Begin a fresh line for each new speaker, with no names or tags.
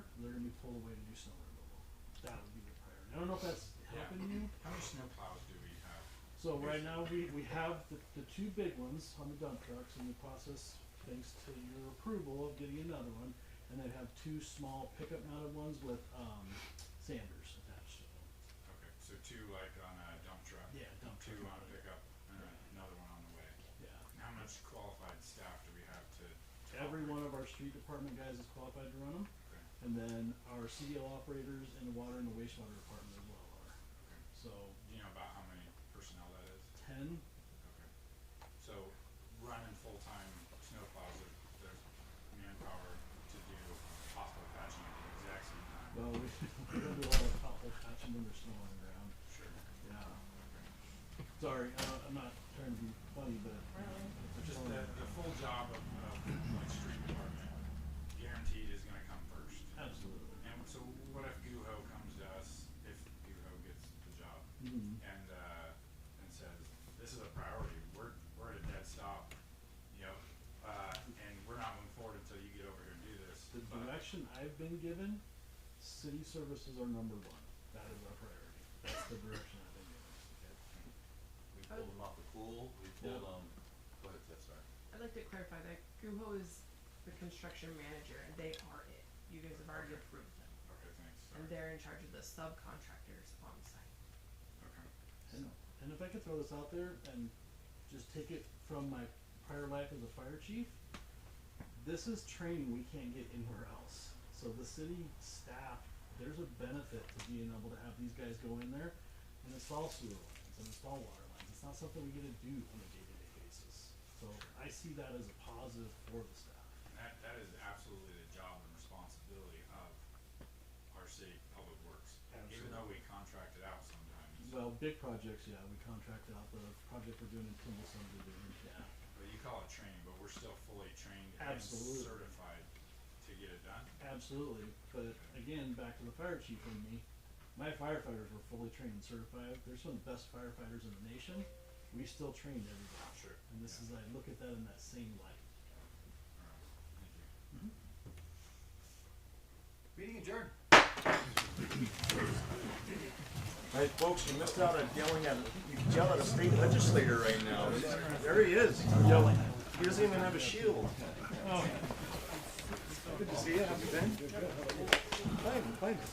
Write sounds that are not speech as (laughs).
we pull away to do snow removal. That would be the priority. I don't know if that's helping you.
How many snow plows do we have?
So right now, we, we have the, the two big ones on the dump trucks in the process, thanks to your approval of getting another one. And then have two small pickup mounted ones with, um, sanders attached to them.
Okay, so two like on a dump truck,
Yeah, dump
two
truck
on a
mounted,
pickup, and another one on the way.
yeah.
And How much qualified staff do we have to? to
Every
operate?
one of our street department guys is qualified to run them.
Okay,
And then our CDL operators and the water and the wastewater department as well are.
okay.
So
Do you know about how many personnel that is?
ten,
Okay. So running full-time snow plows, there- there's manpower to do possible patching at the exact same time.
well, we, (laughs) we don't do a lot of pothole patching when there's snow on the ground,
Sure.
yeah.
Okay.
Sorry, uh, I'm not trying to be funny, but. it's
Just
just
the,
that-
the full job of, of like street department guaranteed is gonna come first.
Absolutely.
And so what if Guho comes to us, if Guho gets the job,
Mhm.
and, uh, and says, this is a priority, we're, we're at a dead stop, you know, uh, and we're not moving forward until you get over here and do this,
The
but,
direction I've been given, city services are number one. That is our priority. That's the direction I've been given.
We pulled them off the pool, we pulled them, go ahead, Tiff, sorry.
I'd like to clarify that Guho is the construction manager and they are it. You guys have already approved them.
okay, thanks,
And
sorry,
they're in charge of the subcontractors on site.
okay.
And, and if I could throw this out there and just take it from my prior life as a fire chief, this is training we can't get anywhere else. So the city staff, there's a benefit to being able to have these guys go in there and install sewer lines and install water lines. It's not something we get to do on a day-to-day basis. So I see that as a positive for the staff.
And That, that is absolutely the job and responsibility of our city public works, even though we contract it out sometimes,
Well, big projects, yeah, we contracted out the project we're doing in Kimball subdivision, yeah.
but you call it training, but we're still fully trained and
Absolutely.
certified to get it done.
Absolutely, but again, back to the fire chief and me, my firefighters were fully trained and certified, they're some of the best firefighters in the nation, we still trained everybody.
Sure.
And this is, I look at that in that same light.
Alright, thank you.
Meeting adjourned.
Hey, folks, you missed out on yelling at, you can yell at a state legislator right now. There he is, yelling. He doesn't even have a shield. Good to see you, how you been? Fine, fine.